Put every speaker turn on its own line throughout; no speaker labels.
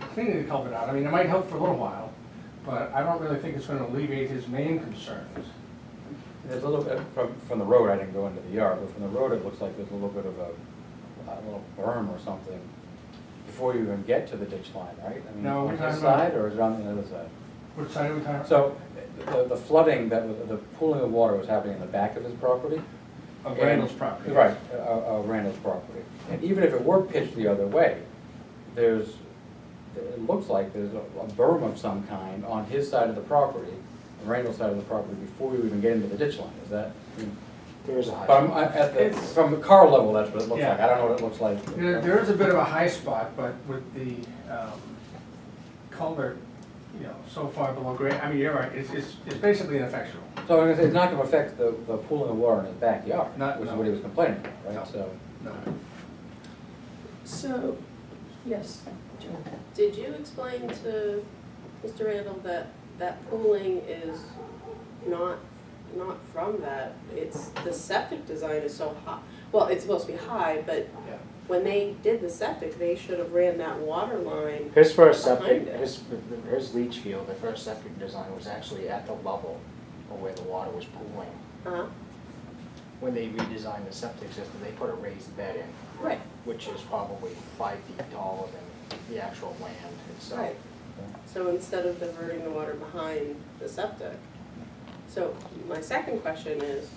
cleaning the culvert out. I mean, it might help for a little while, but I don't really think it's gonna alleviate his main concerns.
There's a little bit, from, from the road, I didn't go into the yard, but from the road, it looks like there's a little bit of a, a little berm or something before you even get to the ditch line, right? I mean,
No, we're
On
talking
this
about-
side, or is it on the other side?
What side are we talking?
So, the, the flooding, that, was- the pooling of water was happening in the back of his property?
Of Randall's property.
Right, uh, uh, Randall's property. And even if it were pitched the other way, there's, it looks like there's a a berm of some kind on his side of the property, Randall's side of the property, before you even get into the ditch line, is that?
There is a
But I'm,
high.
I- at the,
Hmm. It's-
from the car level, that's what it looks
Yeah.
like, I don't know what it looks like.
There, there is a bit of a high spot, but with the um, culvert, you know, so far below grade, I mean, you're right, it's, it's, it's basically ineffectual.
So I'm gonna say, it's not gonna affect the, the pooling of water in his backyard,
Not-
which is
no.
what he was complaining about,
No.
right? So,
No.
So, yes, Joe.
Did you explain to Mr. Randall that that pooling is not, not from that? It's, the septic design is so high, well, it's supposed to be high, but
Yeah.
when they did the septic, they should have ran that water line.
His first septic,
Behind it.
his, his leach field, the first septic design was actually at the level of where the water was pooling.
Uh-huh.
When they redesigned the septic system, they put a raised bed in,
Right,
which is probably five feet taller than the actual land itself.
right. So instead of diverting the water behind the septic. So my second question is,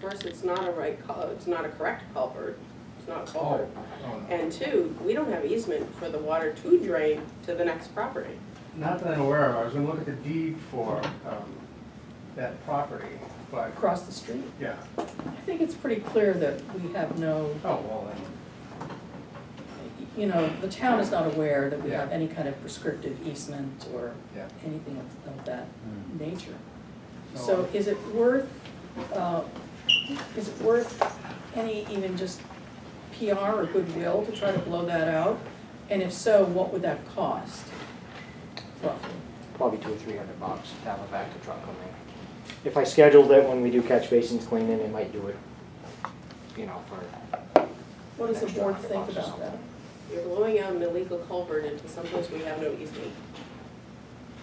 first, it's not a right cul, it's not a correct culvert, it's not a culvert.
Oh, no.
And two, we don't have easement for the water to drain to the next property.
Not that I'm aware of, I was gonna look at the deed for um, that property, but,
across the street.
yeah,
I think it's pretty clear that we have no,
oh, well,
you know, the town is not aware that we have
Yeah.
any kind of prescriptive easement or
Yeah.
anything of- of that
Hmm.
nature.
So-
So is it worth, uh, is it worth any even just PR or goodwill to try to blow that out? And if so, what would that cost roughly?
Probably two or three hundred bucks to have a vacuum truck come in. If I scheduled it when we do catch basins cleaning, they might do it, you know, for
What does the
Extra
board
hundred
think
bucks or
about that?
something.
You're blowing out an illegal culvert into someplace we have no easement.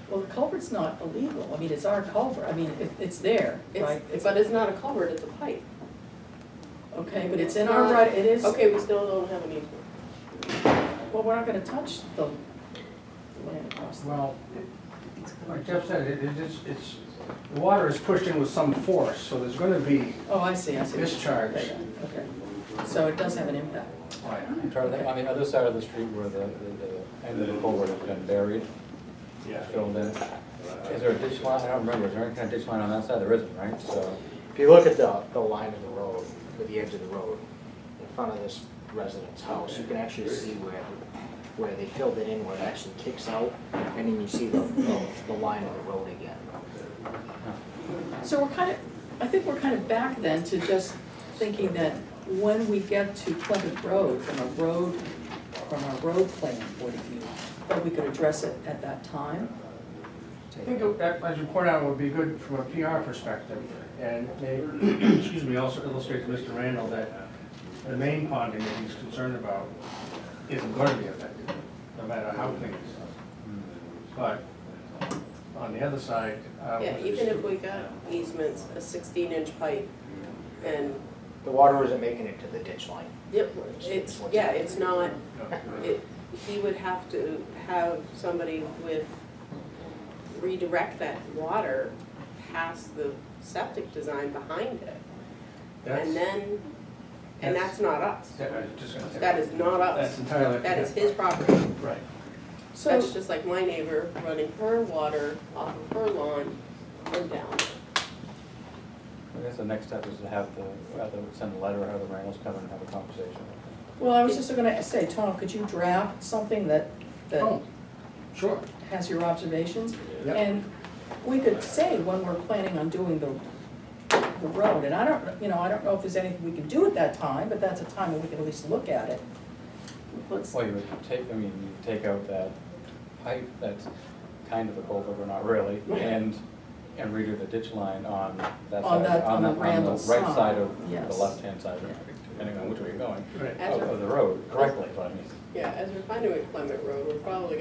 Well, the culvert's not illegal, I mean, it's our culvert, I mean, it, it's there, right?
It's, but it's not a culvert, it's a pipe.
Okay, but it's in our right, it is,
Okay, we still don't have an easement.
well, we're not gonna touch the land across the.
well, it- like Jeff said, it, it is, it's, the water is pushed in with some force, so there's gonna be
Oh, I see, I see.
discharge.
Okay, okay. so it does have an impact.
Oh, yeah.
I'm trying to think, on the other side of the street where the, the- the end of the culvert has been buried, filled in, is there a ditch line? I don't remember, is there any kind of ditch line on that side? There isn't, right? So.
If you look at the, the line of the road, or the edge of the road, in front of this resident's house, you can actually see where, where they filled it in, where it actually kicks out, and then you see the, the, the line of the road again.
So we're kind of, I think we're kind of back then to just thinking that when we get to Plymouth Road, from a road, from a road plan point of view, that we could address it at that time.
I think it- that, as you point out, would be good from a PR perspective, and may, excuse me, also illustrate to Mr. Randall that the main ponding that he's concerned about isn't going to be affected, no matter how things. But on the other side, uh,
Yeah, even if we got easements, a sixteen inch pipe and,
The water isn't making it to the ditch line.
yep, it's, yeah, it's not,
No.
it, he would have to have somebody with, redirect that water past the septic design behind it.
That's-
And then, and
that's-
that's not us.
that- I was just gonna say-
That is not
That's
us.
entirely.
That is his property.
Right.
So,
That's just like my neighbor running her water off of her lawn and down.
I guess the next step is to have the, have the, send a letter, have the Reynolds come and have a conversation.
well, I was just gonna say, Tom, could you draft something that, that
Oh, sure,
has your observations?
yeah,
And we could say when we're planning on doing the, the road, and I don't, you know, I don't know if there's anything we can do at that time, but that's a time when we can at least look at it. Let's,
Well, you would take, I mean, you take out that pipe that's kind of a culvert, but not really, and, and redo the ditch line on that
On
side,
that-
on
on
the,
the
on the right
Randall's side,
side of the
yes.
left-hand side, depending on which way you're going,
right.
of, of the road, correctly, but I mean.
Yeah, as we're finding with Clement Road, we're probably